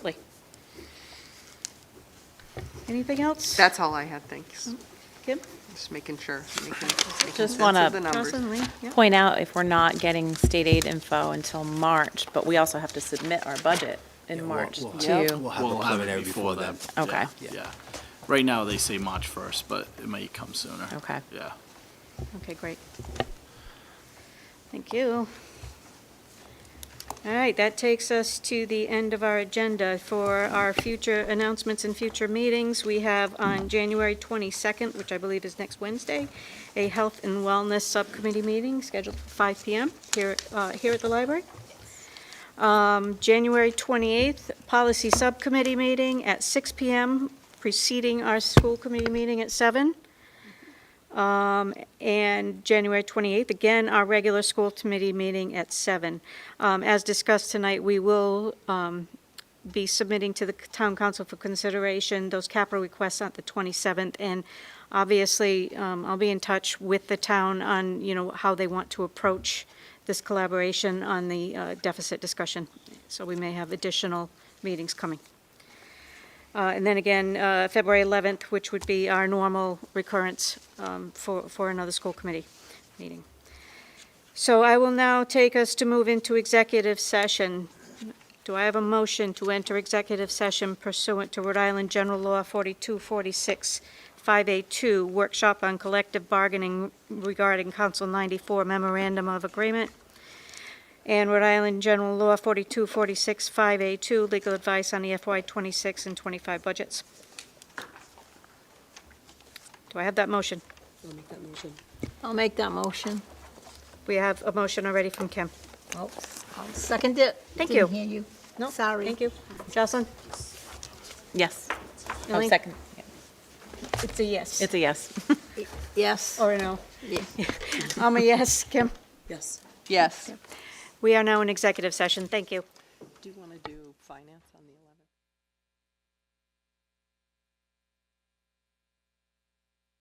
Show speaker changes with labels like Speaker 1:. Speaker 1: Like- Anything else?
Speaker 2: That's all I had, thanks.
Speaker 1: Kim?
Speaker 2: Just making sure, making making
Speaker 3: Just
Speaker 2: sense
Speaker 3: wanna-
Speaker 2: of the numbers.
Speaker 1: Allison, Lee? Yeah.
Speaker 3: point out if we're not getting state aid info until March, but we also have to submit our budget
Speaker 4: Yeah,
Speaker 3: in
Speaker 4: we'll-
Speaker 3: March
Speaker 4: we'll have- We'll
Speaker 3: too.
Speaker 4: have a preliminary before then.
Speaker 3: then. Okay.
Speaker 4: Yeah, Yeah. Right now, they say March 1st, but it might come sooner.
Speaker 3: Okay.
Speaker 4: Yeah.
Speaker 1: Okay, great. Thank you. All right, that takes us to the end of our agenda. For our future announcements and future meetings, we have on January 22nd, which I believe is next Wednesday, a Health and Wellness Subcommittee meeting scheduled for 5 PM here, uh, here at the library. Um, January 28th, Policy Subcommittee meeting at 6 PM, preceding our school committee meeting at 7. Um, and January 28th, again, our regular school committee meeting at seven. Um, as discussed tonight, we will, um, be submitting to the town council for consideration those capital requests on the 27th. And obviously, um, I'll be in touch with the town on, you know, how they want to approach this collaboration on the uh, deficit discussion. So we may have additional meetings coming. Uh, And then again, uh, February 11th, which would be our normal recurrence um, for for another school committee meeting. So I will now take us to move into executive session. Do I have a motion to enter executive session pursuant to Rhode Island General Law 4246, 5A2, workshop on collective bargaining regarding Council 94 memorandum of agreement? And Rhode Island General Law 42465 a 2 legal advice on E the FY '26 and '25 budgets. Do I have that motion?
Speaker 5: I'll make that motion.
Speaker 6: I'll make that motion.
Speaker 1: We have a motion already from Kim.
Speaker 6: I'll I'll second it.
Speaker 1: Oh, Thank
Speaker 6: Didn't
Speaker 1: you.
Speaker 6: hear you.
Speaker 1: No,
Speaker 6: Sorry.
Speaker 1: Thank you. Jocelyn?
Speaker 3: Yes, I'll
Speaker 1: Elaine?
Speaker 3: second.
Speaker 1: It's a yes.
Speaker 3: It's a yes.
Speaker 6: Yes.
Speaker 1: Or a no?
Speaker 6: Yeah.
Speaker 1: I'm a yes, Kim.
Speaker 5: Yes.
Speaker 2: Yes.
Speaker 1: We are now in executive session. Thank you.
Speaker 2: Do you want to do finance on the 11th?